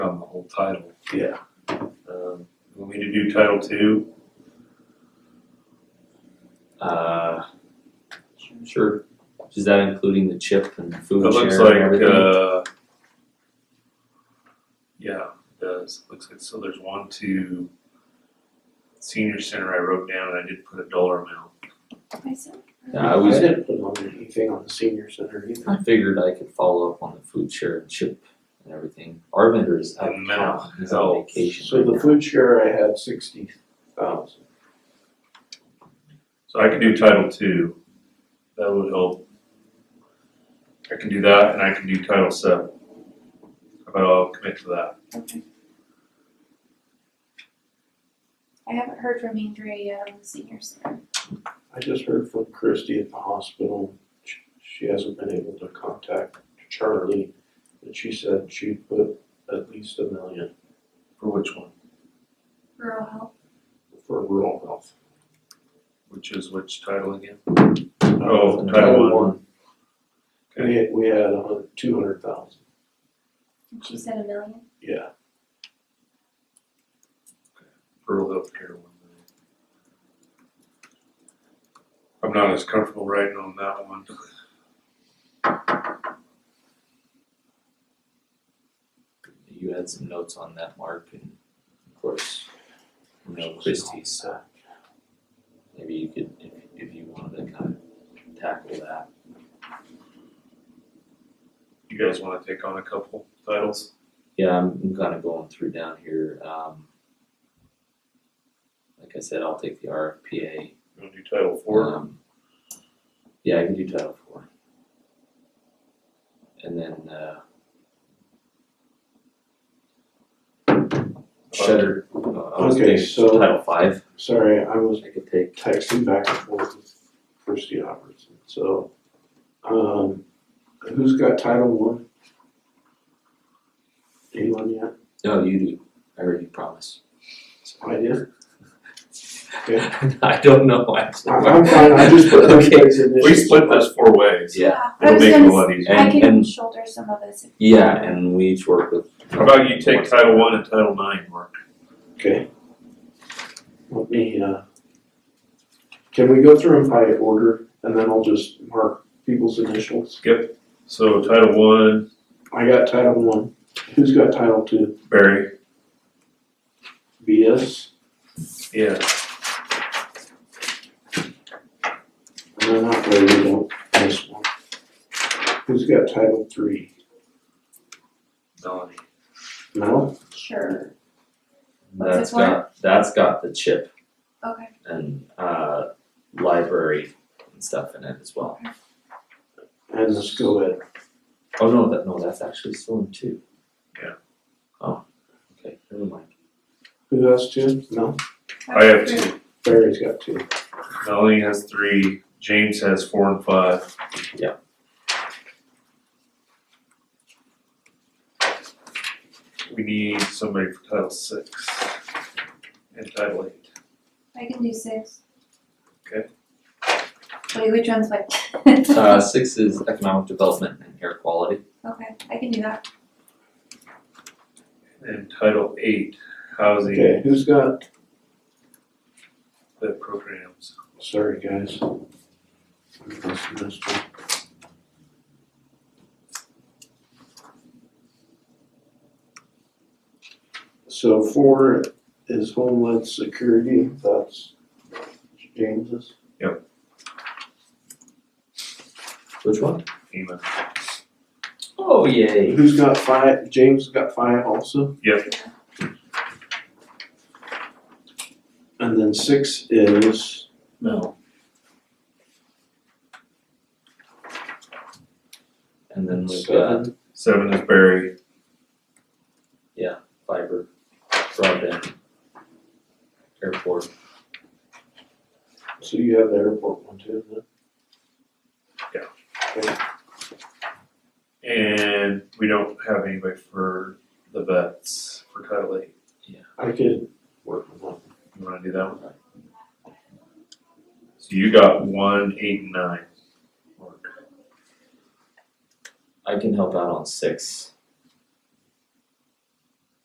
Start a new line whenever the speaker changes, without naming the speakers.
on the whole title.
Yeah.
Um, we need to do title two.
Uh, sure. Is that including the chip and
It
food
looks
share and
like,
everything?
uh, yeah, it does. Looks like, so there's one to senior center I wrote down and I did put a dollar amount.
myself.
yeah, I was
didn't put on anything on the senior center either.
I figured I could follow up on the food share and chip and everything. Our vendor is out
And
of
mental
town. He's on
health.
vacation.
So the
right
food share I had sixty thousand.
So I can do title two. That would help. I can do that and I can do title seven. How about I'll commit to that?
Okay. I haven't heard from Andrea yet on the senior center.
I just heard from Christy at the hospital. Sh- She hasn't been able to contact Charlie, but she said she put at least a million
For which one?
Rural health.
for rural health.
Which is which title again? Oh, title
Title
one.
one. We, we had a hun, two hundred thousand,
And she said a million.
yeah.
rural healthcare one. I'm not as comfortable writing on that one.
You had some notes on that, Mark, and of course, you know Christie's. so Maybe you could, if, if you wanted to kind of tackle that.
You guys wanna take on a couple titles?
Yeah, I'm, I'm kind of going through down here. Um, like I said, I'll take the RFPA.
You wanna do title four?
Um, yeah, I can do Title Four. And then uh, Shutter. uh, I was
Okay,
thinking
so-
Title Five.
Sorry, I was
I could take.
texting back and forth with Christy Robertson, so, um, who's got title one? Anyone yet?
No, you do. I heard you promise.
I did.
I don't know actually.
I'm, I'm fine, I just put those
Okay.
things in
We split this four ways.
Yeah.
I
It'll
was
make it a
gonna,
lot
s- I
easier.
And-
can shoulder some of this. if-
Yeah, and we each work with.
How about you take title one and title nine, Mark?
Okay. Let me, uh, can we go through them by order, and then I'll just mark people's initials?
So title one,
I got title one, who's got title two?
Barry,
BS,
yeah,
and then that way we don't miss one. Who's got title three?
Melanie.
No?
Sure. What's
That's
this one?
got that's got the chip
Okay.
and uh, library and stuff in it as well.
And let's go ahead.
Oh no, that no, that's actually still in two.
Yeah.
Oh, okay, never mind.
Who has two? No,
I have two.
Barry's got two.
Melanie has three, James has four and five.
Yeah.
We need somebody for title six and title eight.
I can do six.
Okay.
Wait, which one's what?
Uh, six is economic development and air quality.
Okay, I can do that.
And title eight, housing,
Okay, who's got,
the programs.
sorry, guys. I must have missed one. So four is homeland security, that's James's.
Which one?
FEMA.
Oh yay!
Who's got five, James got five also, and then six is,
No.
And then we've got
seven,
Seven is Barry,
fiber, broadband, airport.
so you have the airport one too, then?
and we don't have anybody for the vets for title eight.
I could work with one.
You wanna do that one? So you got one, eight, and nine. Mark.
I can help out on six.